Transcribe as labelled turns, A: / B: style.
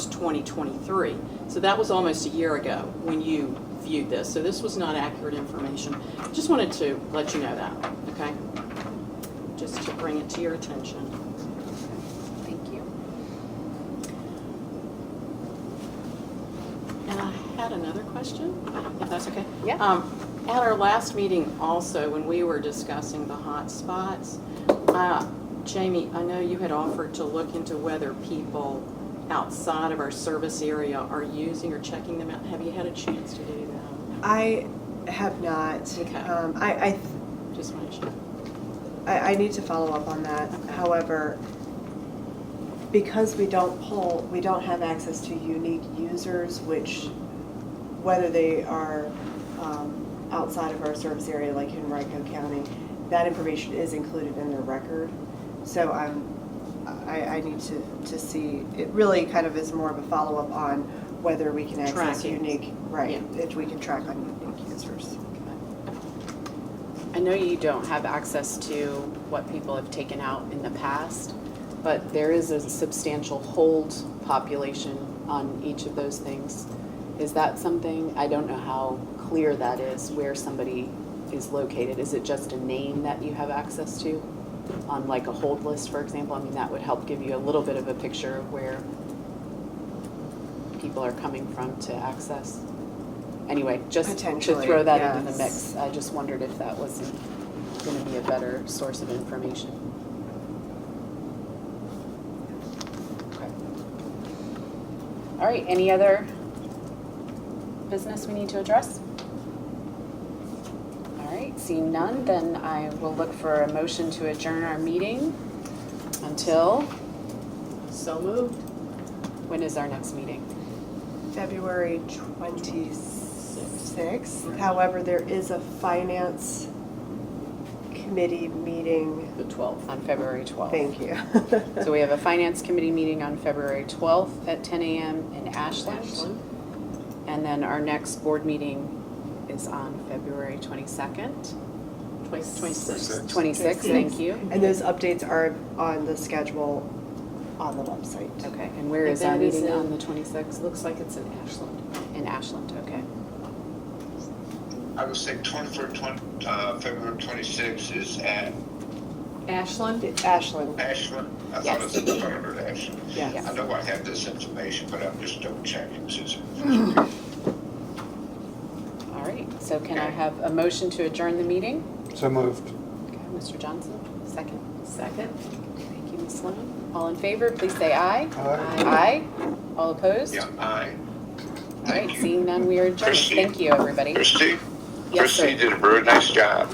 A: 2023. So that was almost a year ago when you viewed this, so this was not accurate information. Just wanted to let you know that, okay? Just to bring it to your attention.
B: Thank you.
A: And I had another question, if that's okay?
B: Yeah.
A: Um, At our last meeting also, when we were discussing the hot spots, uh, Jamie, I know you had offered to look into whether people outside of our service area are using or checking them out. Have you had a chance to do that?
C: I have not.
A: Okay.
C: Um, I, I, th-
A: Just wanted to check.
C: I, I need to follow up on that.
A: Okay.
C: However, because we don't pull, we don't have access to unique users, which, whether they are um, outside of our service area, like in Henrico County, that information is included in their record. So I'm, I, I need to, to see, it really kind of is more of a follow-up on whether we can access
A: Tracking.
C: unique, right,
A: Yeah.
C: if we can track on unique users.
B: I know you don't have access to what people have taken out in the past, but there is a substantial hold population on each of those things. Is that something, I don't know how clear that is, where somebody is located. Is it just a name that you have access to? On like a hold list, for example, I mean, that would help give you a little bit of a picture of where people are coming from to access. Anyway, just to
C: Potentially,
B: throw that into the
C: yes.
B: mix. I just wondered if that was going to be a better source of information. Okay. All right, any other business we need to address? All right, seeing none, then I will look for a motion to adjourn our meeting until,
A: So moved.
B: when is our next meeting?
C: February 26th. However, there is a finance committee meeting.
B: The 12th. On February 12th.
C: Thank you.
B: So we have a finance committee meeting on February 12th at 10 a.m. in Ashland. And then our next board meeting is on February 22nd.
A: Twenty- Twenty-six.
B: 26th, thank you.
C: And those updates are on the schedule on the website.
B: Okay, and where is
A: And
B: our
A: that is
B: meeting on
A: in-
B: the 26th?
A: Looks like it's in Ashland.
B: In Ashland, okay.
D: I would say 24, 20, uh, February 26 is at
A: Ashland?
C: Ashland,
D: Ashland. I thought it was in Harvard, Ashland.
C: yes.
D: I know I have this information, but I'm just double checking since.
B: All right, so can I have a motion to adjourn the meeting?
E: So moved.
B: Okay, Mr. Johnson, second.
A: Second.
B: Thank you, Ms. Sloan. All in favor, please say aye.
E: Aye.
B: Aye. All opposed?
D: Yeah, I,
B: All
D: thank
B: right,
D: you.
B: seeing none, we are adjourned.
D: Christine?
B: Thank you, everybody.
D: Christie?
B: Yes, sir.
D: Christie did a very nice job.